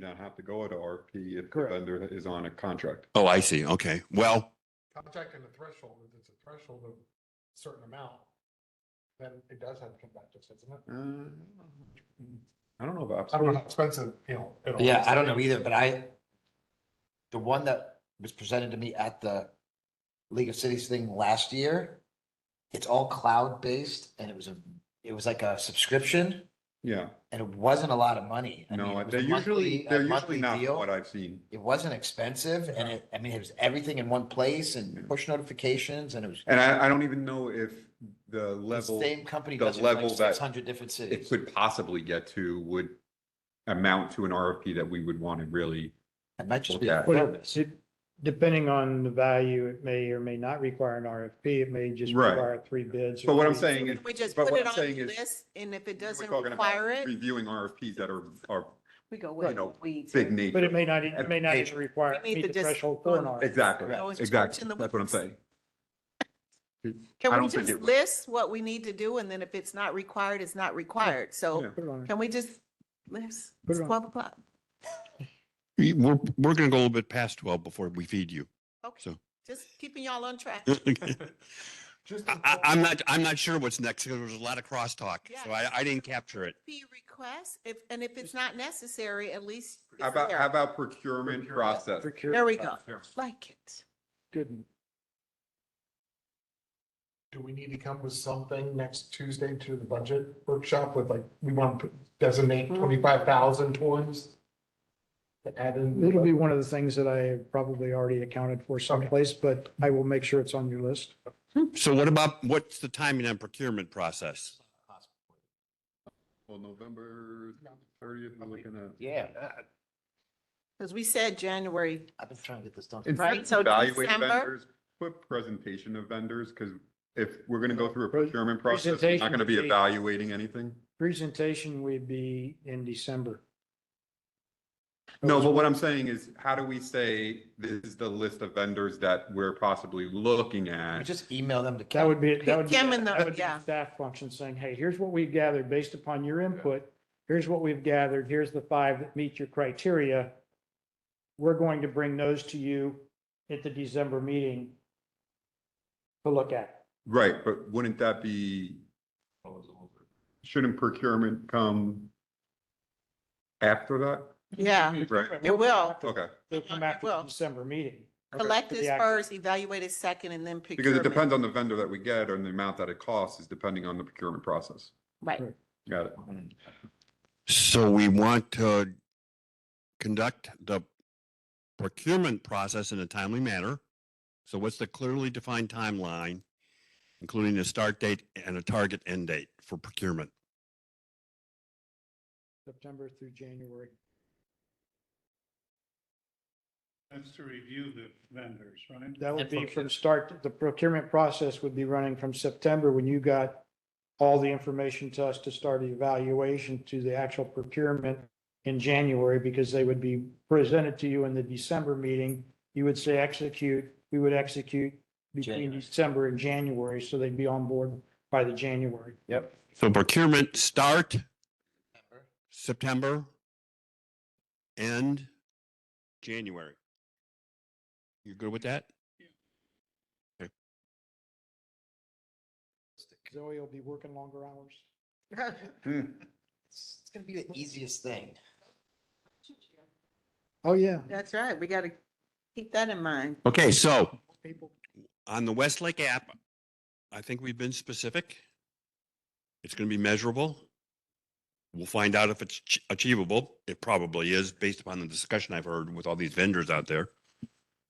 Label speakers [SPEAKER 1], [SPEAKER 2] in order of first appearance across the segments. [SPEAKER 1] not have to go at RFP if the
[SPEAKER 2] Correct.
[SPEAKER 1] vendor is on a contract.
[SPEAKER 3] Oh, I see. Okay. Well,
[SPEAKER 2] Contract and the threshold, if it's a threshold of certain amount, then it does have to come back to us, doesn't it?
[SPEAKER 1] Uh, I don't know about.
[SPEAKER 2] I don't know how expensive, you know. it'll-
[SPEAKER 4] Yeah, I don't know either, but I, the one that was presented to me at the League of Cities thing last year, it's all cloud-based and it was a, it was like a subscription
[SPEAKER 1] Yeah,
[SPEAKER 4] and it wasn't a lot of money. I mean,
[SPEAKER 1] no,
[SPEAKER 4] it was a
[SPEAKER 1] they're usually,
[SPEAKER 4] monthly- a
[SPEAKER 1] they're usually
[SPEAKER 4] monthly
[SPEAKER 1] not
[SPEAKER 4] deal.
[SPEAKER 1] what I've seen.
[SPEAKER 4] It wasn't expensive and it, I mean, it was everything in one place and push notifications and it was
[SPEAKER 1] And I, I don't even know if the
[SPEAKER 4] the
[SPEAKER 1] level
[SPEAKER 4] same company
[SPEAKER 1] the
[SPEAKER 4] does it in like
[SPEAKER 1] level that
[SPEAKER 4] six hundred different
[SPEAKER 1] it
[SPEAKER 4] cities.
[SPEAKER 1] could possibly get to would amount to an RFP that we would want to really.
[SPEAKER 4] It might just be
[SPEAKER 1] Yeah.
[SPEAKER 4] a
[SPEAKER 5] Well,
[SPEAKER 4] service.
[SPEAKER 5] it- Depending on the value, it may or may not require an RFP. It may just
[SPEAKER 1] Right.
[SPEAKER 5] require three bids. or
[SPEAKER 1] But what I'm
[SPEAKER 5] three-
[SPEAKER 1] saying is.
[SPEAKER 6] We just
[SPEAKER 1] but
[SPEAKER 6] put
[SPEAKER 1] what
[SPEAKER 6] it
[SPEAKER 1] I'm
[SPEAKER 6] on the
[SPEAKER 1] saying is-
[SPEAKER 6] list, and if it
[SPEAKER 1] we're
[SPEAKER 6] doesn't
[SPEAKER 1] talking about
[SPEAKER 6] require it,
[SPEAKER 1] Reviewing RFPs that are, are
[SPEAKER 6] we go
[SPEAKER 1] you
[SPEAKER 6] with
[SPEAKER 1] know,
[SPEAKER 6] weeds.
[SPEAKER 1] big
[SPEAKER 6] or-
[SPEAKER 1] nature.
[SPEAKER 5] But it may not, it may not even require,
[SPEAKER 6] We need
[SPEAKER 5] meet
[SPEAKER 6] to
[SPEAKER 5] the
[SPEAKER 6] just-
[SPEAKER 5] threshold for an RFP.
[SPEAKER 1] Exactly,
[SPEAKER 6] No, it's
[SPEAKER 1] exactly.
[SPEAKER 6] in the
[SPEAKER 1] That's what I'm
[SPEAKER 6] woods.
[SPEAKER 1] saying. I
[SPEAKER 6] Can we
[SPEAKER 1] don't think
[SPEAKER 6] just
[SPEAKER 1] it-
[SPEAKER 6] list what we need to do, and then if it's not required, it's not required,
[SPEAKER 1] Yeah.
[SPEAKER 6] so
[SPEAKER 5] Put it on.
[SPEAKER 6] can we just list,
[SPEAKER 5] Put
[SPEAKER 6] it's
[SPEAKER 5] it on.
[SPEAKER 6] twelve o'clock?
[SPEAKER 3] we- we're, we're going to go a little bit past 12 before we feed you.
[SPEAKER 6] Okay,
[SPEAKER 3] So-
[SPEAKER 6] just keeping y'all on track.
[SPEAKER 2] Just
[SPEAKER 3] I, I- I'm not, I'm not sure what's next because there was a lot of crosstalk. So I,
[SPEAKER 6] Yeah.
[SPEAKER 3] I didn't capture it.
[SPEAKER 6] Be request, if, and if it's not necessary, at least. it's
[SPEAKER 1] How about,
[SPEAKER 6] there.
[SPEAKER 1] how about procurement process?
[SPEAKER 6] There we go, like it.
[SPEAKER 5] Good.
[SPEAKER 2] Do we need to come with something next Tuesday to the budget workshop with like, we want to designate
[SPEAKER 5] Mm.
[SPEAKER 2] twenty-five thousand towards? To add in.
[SPEAKER 5] It'll be one of the things that I probably already accounted for someplace, but I will make sure it's on your list.
[SPEAKER 3] So what about, what's the timing on procurement process?
[SPEAKER 1] Well, November thirtieth, we're looking at.
[SPEAKER 4] Yeah,
[SPEAKER 6] Because we said January,
[SPEAKER 4] I've been trying to get this done.
[SPEAKER 1] Instead
[SPEAKER 6] Right,
[SPEAKER 1] of
[SPEAKER 6] so
[SPEAKER 1] evaluate
[SPEAKER 6] December-
[SPEAKER 1] vendors, Put presentation of vendors, because if we're gonna go through a
[SPEAKER 5] Pro-
[SPEAKER 1] procurement process, we're not
[SPEAKER 5] presentation Oh,
[SPEAKER 1] gonna be
[SPEAKER 5] would be-
[SPEAKER 1] evaluating anything.
[SPEAKER 5] Presentation would be in December.
[SPEAKER 1] No, but what I'm saying is, how do we say this is the list of vendors that we're possibly looking
[SPEAKER 4] We
[SPEAKER 1] at?
[SPEAKER 4] just email them to.
[SPEAKER 5] That
[SPEAKER 4] Kevin.
[SPEAKER 5] would be, that would be.
[SPEAKER 6] Kim and the-
[SPEAKER 5] that would be
[SPEAKER 6] yeah.
[SPEAKER 5] Staff function saying, hey, here's what we've gathered based upon your input. Here's what we've gathered. Here's the five that meet your criteria. We're going to bring those to you at the December meeting to look at.
[SPEAKER 1] Right, but wouldn't that be? Shouldn't procurement come after that?
[SPEAKER 6] Mm-hmm. yeah,
[SPEAKER 1] Right,
[SPEAKER 6] it will.
[SPEAKER 1] okay.
[SPEAKER 5] They'll come
[SPEAKER 6] It
[SPEAKER 5] after the
[SPEAKER 6] will.
[SPEAKER 5] December meeting.
[SPEAKER 6] Collect is
[SPEAKER 5] Yeah.
[SPEAKER 6] first, evaluate is second, and then
[SPEAKER 1] Because
[SPEAKER 6] procurement.
[SPEAKER 1] it depends on the vendor that we get and the amount that it costs is depending on the procurement process.
[SPEAKER 6] Right.
[SPEAKER 1] Got it.
[SPEAKER 3] So we want to conduct the procurement process in a timely manner. So what's the clearly defined timeline, including a start date and a target end date for procurement?
[SPEAKER 5] September through January.
[SPEAKER 7] That's to review the vendors, right?
[SPEAKER 5] That would
[SPEAKER 4] And
[SPEAKER 5] be
[SPEAKER 4] procure-
[SPEAKER 5] from start, the procurement process would be running from September when you got all the information to us to start the evaluation to the actual procurement in January, because they would be presented to you in the December meeting. You would say execute, we would execute between
[SPEAKER 4] January.
[SPEAKER 5] December and January, so they'd be on board by the January.
[SPEAKER 3] So procurement start September, end January. You good with that?
[SPEAKER 5] Zoe will be working longer hours.
[SPEAKER 4] It's it's gonna be the easiest thing.
[SPEAKER 5] Oh, yeah.
[SPEAKER 6] That's right, we gotta keep that in mind.
[SPEAKER 3] Okay, so
[SPEAKER 5] People,
[SPEAKER 3] on the Westlake app, I think we've been specific. It's going to be measurable. We'll find out if it's ch- achievable. It probably is based upon the discussion I've heard with all these vendors out there.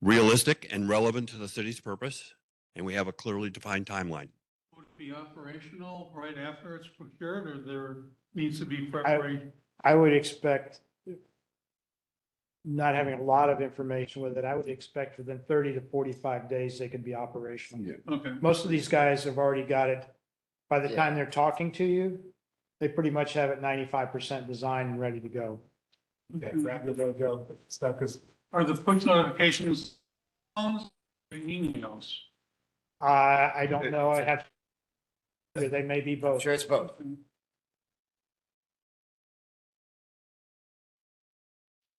[SPEAKER 3] Realistic and relevant to the city's purpose, and we have a clearly defined timeline.
[SPEAKER 7] Would it be operational right after it's procured, or there needs to be preparation?
[SPEAKER 5] I would expect, not having a lot of information with it, I would expect within thirty to forty-five days, they could be operational.
[SPEAKER 1] Yeah.
[SPEAKER 7] Okay,
[SPEAKER 5] Most of these guys have already got it. By the
[SPEAKER 4] Yeah.
[SPEAKER 5] time they're talking to you, they pretty much have it ninety-five percent designed and ready to go.
[SPEAKER 2] Yeah, rapid logo stuff, because
[SPEAKER 7] are the push notifications phones or emails?
[SPEAKER 5] I, I don't know, I have, they may be
[SPEAKER 4] I'm
[SPEAKER 5] both.
[SPEAKER 4] sure it's both.